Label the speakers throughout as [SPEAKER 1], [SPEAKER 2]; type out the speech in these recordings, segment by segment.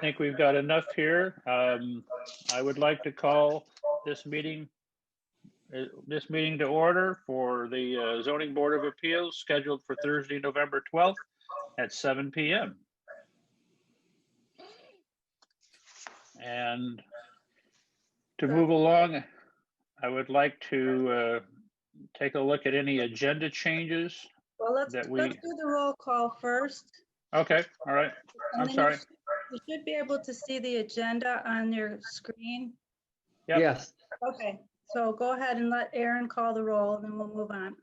[SPEAKER 1] think we've got enough here. Um, I would like to call this meeting, uh, this meeting to order for the uh, zoning board of appeals scheduled for Thursday, November 12th at seven PM. And to move along, I would like to uh, take a look at any agenda changes.
[SPEAKER 2] Well, let's,
[SPEAKER 1] that
[SPEAKER 2] let's
[SPEAKER 1] we-
[SPEAKER 2] do the roll call first.
[SPEAKER 1] Okay, all right.
[SPEAKER 2] and
[SPEAKER 1] I'm
[SPEAKER 2] then you
[SPEAKER 1] sorry.
[SPEAKER 2] sh- You should be able to see the agenda on your screen.
[SPEAKER 1] Yep.
[SPEAKER 3] Yes,
[SPEAKER 2] Okay, so go ahead and let Aaron call the roll, and then we'll move on.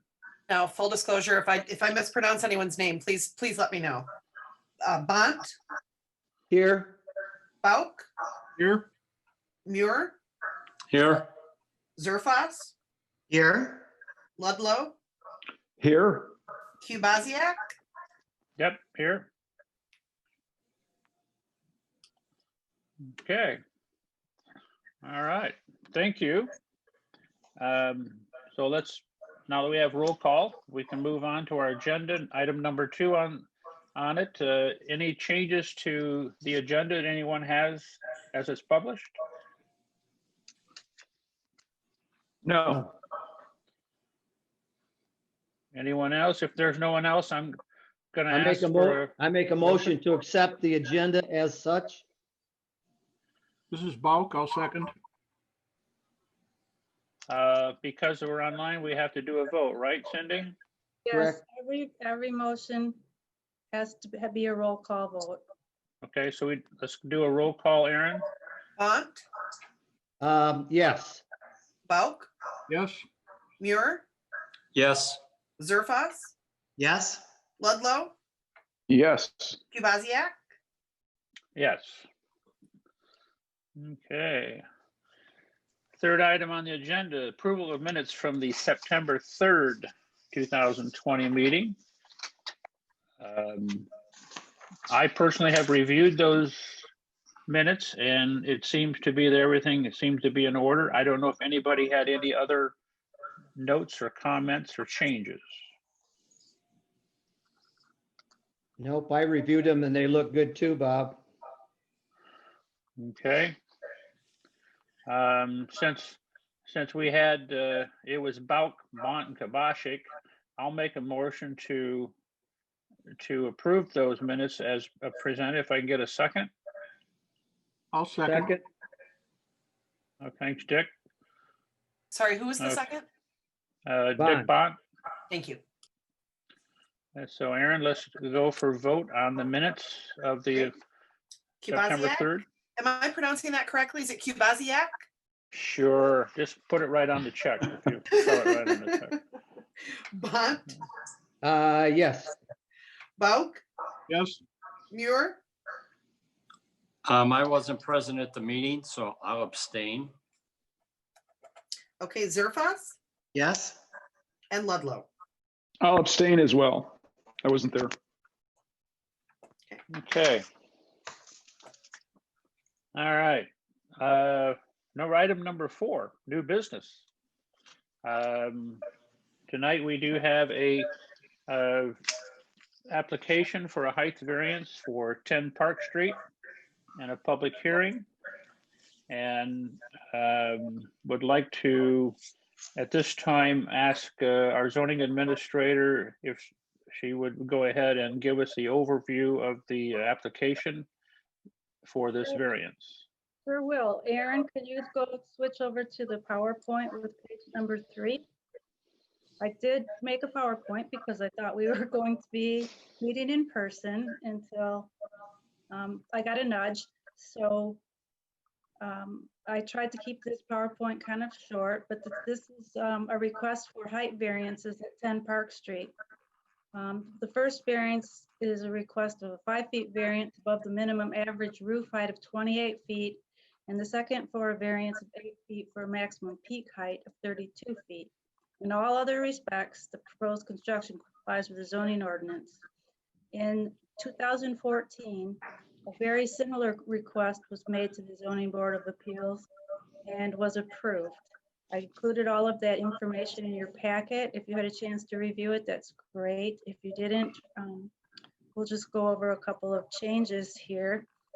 [SPEAKER 4] Now, full disclosure, if I, if I mispronounce anyone's name, please, please let me know. Uh, Bont,
[SPEAKER 3] here,
[SPEAKER 4] Bauk,
[SPEAKER 5] Here.
[SPEAKER 4] Muir,
[SPEAKER 5] Here.
[SPEAKER 4] Zerfas,
[SPEAKER 6] Here,
[SPEAKER 4] Ludlow,
[SPEAKER 3] here,
[SPEAKER 4] Kubasiak,
[SPEAKER 1] Yep, here. Okay. All right, thank you. Um, So let's, now that we have roll call, we can move on to our agenda. Item number two on, on it, Uh, any changes to the agenda that anyone has as it's published?
[SPEAKER 3] no,
[SPEAKER 1] Anyone else? If there's no one else, I'm gonna
[SPEAKER 3] I
[SPEAKER 1] ask
[SPEAKER 3] make a mo,
[SPEAKER 1] for,
[SPEAKER 3] I make a motion to accept the agenda as such.
[SPEAKER 5] This is Bauk. I'll second.
[SPEAKER 1] uh, because we're online, we have to do a vote, right, Cindy?
[SPEAKER 2] Yes, every, every motion has to be a roll call vote.
[SPEAKER 1] Okay, so we, let's do a roll call, Aaron.
[SPEAKER 4] Bont,
[SPEAKER 3] Um, yes,
[SPEAKER 4] Bauk,
[SPEAKER 5] Yes.
[SPEAKER 4] Muir,
[SPEAKER 5] Yes.
[SPEAKER 4] Zerfas,
[SPEAKER 6] yes,
[SPEAKER 4] Ludlow,
[SPEAKER 7] Yes,
[SPEAKER 4] Kubasiak,
[SPEAKER 1] Yes. Okay. Third item on the agenda, approval of minutes from the September 3rd, 2020 meeting. Um, I personally have reviewed those minutes and it seems to be that everything it seems to be in order. I don't know if anybody had any other notes or comments or changes.
[SPEAKER 3] nope, I reviewed them and they look good too, Bob.
[SPEAKER 1] Okay. Um, since, since we had, uh, it was Bauk, Bont and Kabashik, I'll make a motion to, to approve those minutes as uh, presented, if I can get a second.
[SPEAKER 5] I'll second.
[SPEAKER 3] Second,
[SPEAKER 1] Uh, Thanks, Dick.
[SPEAKER 4] sorry, who was the
[SPEAKER 1] Okay.
[SPEAKER 4] second?
[SPEAKER 1] Uh, Dick
[SPEAKER 3] Bont.
[SPEAKER 1] Bont.
[SPEAKER 4] Thank you.
[SPEAKER 1] And Uh, So Aaron, let's go for vote on the minutes of the September
[SPEAKER 4] Kubasiak,
[SPEAKER 1] 3rd.
[SPEAKER 4] am I pronouncing that correctly? Is it Kubasiak?
[SPEAKER 1] Sure, just put it right on the check. if you spell it right on the check.
[SPEAKER 4] Bont,
[SPEAKER 3] uh, yes,
[SPEAKER 4] Bauk,
[SPEAKER 5] Yes.
[SPEAKER 4] Muir,
[SPEAKER 8] Um, I wasn't present at the meeting, so I'll abstain.
[SPEAKER 4] okay, Zerfas
[SPEAKER 6] yes,
[SPEAKER 4] and Ludlow.
[SPEAKER 7] I'll abstain as well. I wasn't there.
[SPEAKER 1] Okay. All right, uh, no, item number four, new business. Um, tonight we do have a, uh, application for a height variance for ten Park Street and a public hearing. And, um, would like to, at this time, ask, uh, our zoning administrator if she would go ahead and give us the overview of the uh, application for this variance.
[SPEAKER 2] Sure will. Aaron, could you go switch over to the PowerPoint with page number three? I did make a PowerPoint because I thought we were going to be meeting in person until um, I got a nudge. So um, I tried to keep this PowerPoint kind of short, but th- this is um, a request for height variances at 10 Park Street. Um, The first variance is a request of a five feet variance above the minimum average roof height of 28 feet. And the second for a variance of eight feet for a maximum peak height of 32 feet. In all other respects, the proposed construction complies with the zoning ordinance. In 2014, a very similar request was made to the zoning board of appeals and was approved. I included all of that information in your packet. If you had a chance to review it, that's great. If you didn't, um, we'll just go over a couple of changes here.